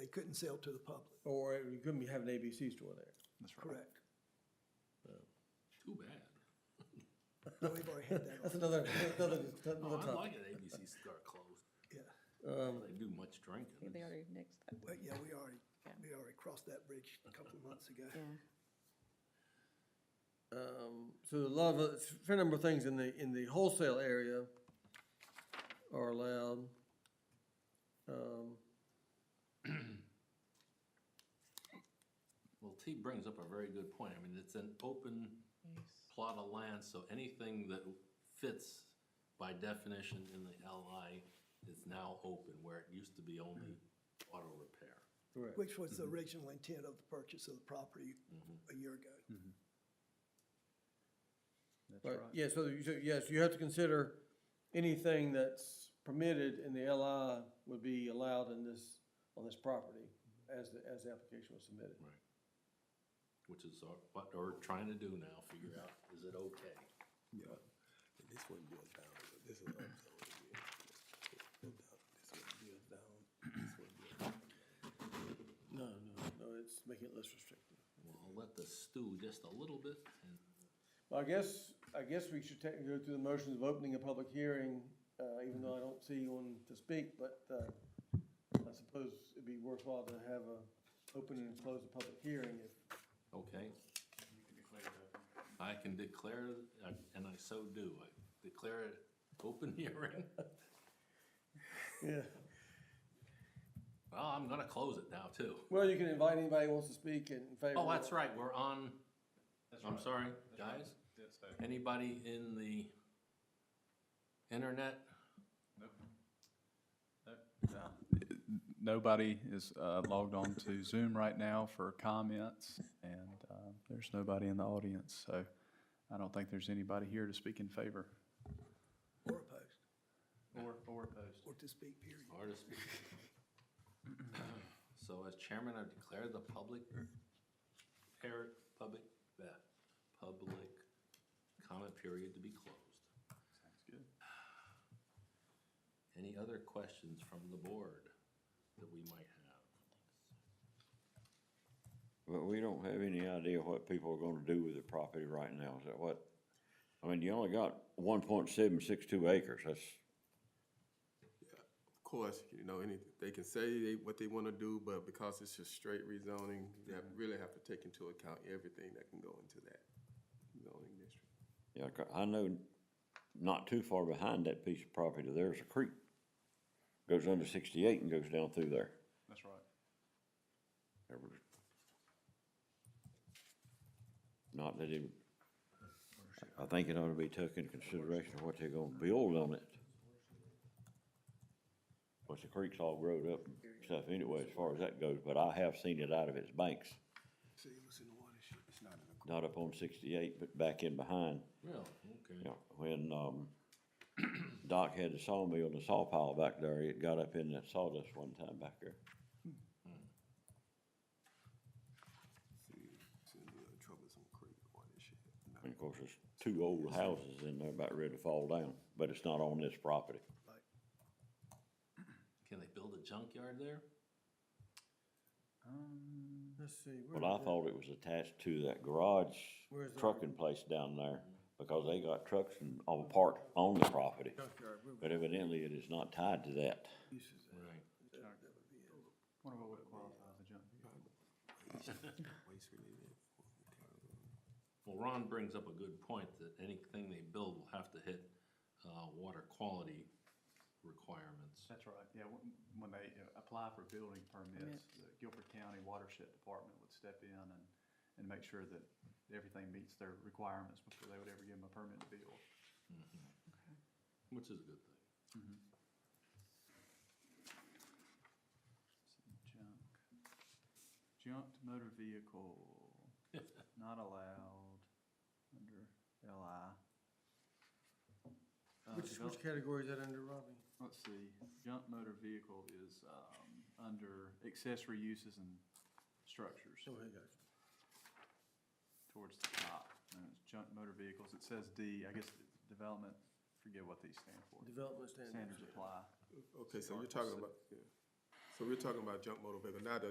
it couldn't sell to the public, Or you couldn't be- have an ABC store there. That's right. correct? Too bad. No, We've already had that, That's another, another, Oh, another I topic. like it. ABC start closed. yeah, They do much Yeah, drinking. They already nixed that, but yeah, we already, Yeah. we already crossed that bridge a couple of months ago. yeah. Um, so a lot of, a fair number of things in the, in the wholesale area are allowed. Um, Well, T brings up a very good point. I mean, it's an open plot of land, so anything that fits by definition in the LI is now open, where it used to be only auto repair. correct. Which was Mm-hmm. the original intent of the purchase of the property a year ago. Mm-hmm. That's Right, right. yeah, so, you- so, yes, you have to consider anything that's permitted in the LI would be allowed in this, on this property as, the as the application was submitted. Right. Which is our- what we're trying to do now, figure out, is it okay? Yeah, and this one goes down, but this is up, so it will- it goes down. This one goes down, this one goes down. No, no, no, it's making it less restrictive. Well, I'll let this stew just a little bit, and Well, I guess, I guess we should take, go through the motions of opening a public hearing, uh, even though I don't see anyone to speak, but, uh, I suppose it'd be worthwhile to have a, open and close a public hearing if Okay. I can declare, uh, and I so do, I declare it open hearing. Yeah. Well, I'm gonna close it now too. Well, you can invite anybody who wants to speak in favor. Oh, that's right, we're on, I'm sorry, right. guys, That's so. anybody in the internet? Nope. Nobody is uh, logged on to Zoom right now for comments, and uh, there's nobody in the audience, so I don't think there's anybody here to speak in favor. Or opposed, Or, or opposed. or to speak, period. or to speak? So as chairman, I declare the public, par public, uh, public comment period to be closed. Sounds good. Any other questions from the board that we might have? But we don't have any idea what people are gonna do with the property right now, is that what? I mean, you only got one point seven six two acres, that's, Of course, you know, any, they can say they, what they wanna do, but because it's just straight rezoning, they have- really have to take into account everything that can go into that zoning district. yeah, I ca- I know not too far behind that piece of property, there's a creek. Goes under sixty-eight and goes down through there. That's right. There was- Not that it, I think it ought to be took into consideration of what they're gonna build on it. But the creek's all growed up and stuff anyway, as far as that goes, but I have seen it out of its banks, See, it was in the watershed, it's not in the. not up on sixty-eight, but back in behind. Really? You Okay. know, when, um, Doc had the sawmill and the saw pile back there, it got up in that sawdust one time back there. See, it's in the troublesome creek watershed. not- And of course, there's two old houses in there about ready to fall down, but it's not on this property. Can they build a junkyard there? Um, Let's see. where Well, I is it? thought it was attached to that garage Where's that? trucking place down there, because they got trucks and all parked on the property. Junkyard, where was But evidently, it is not tied to that. Right. What about what qualifies a junkyard? Waste related. Well, Ron brings up a good point that anything they build will have to hit, uh, water quality requirements. That's right, yeah, when- when they uh, apply for building permits, the Guilford County Watershed Department would step in and, and make sure that everything meets their requirements before they would ever give them a permit to build. Which is a good thing. Junk. Junked motor vehicle, not allowed under LI. Uh, it? Which, develop- which category is that under, Robbie? Let's see, junk motor vehicle is, um, under accessory uses and structures So, here you go. towards the top. And it's junk motor vehicles, it says D, I guess the development, forget what these stand for. Development standards. Standards apply. Okay, so you're talking about, yeah. So we're talking about junk motor vehicle, not a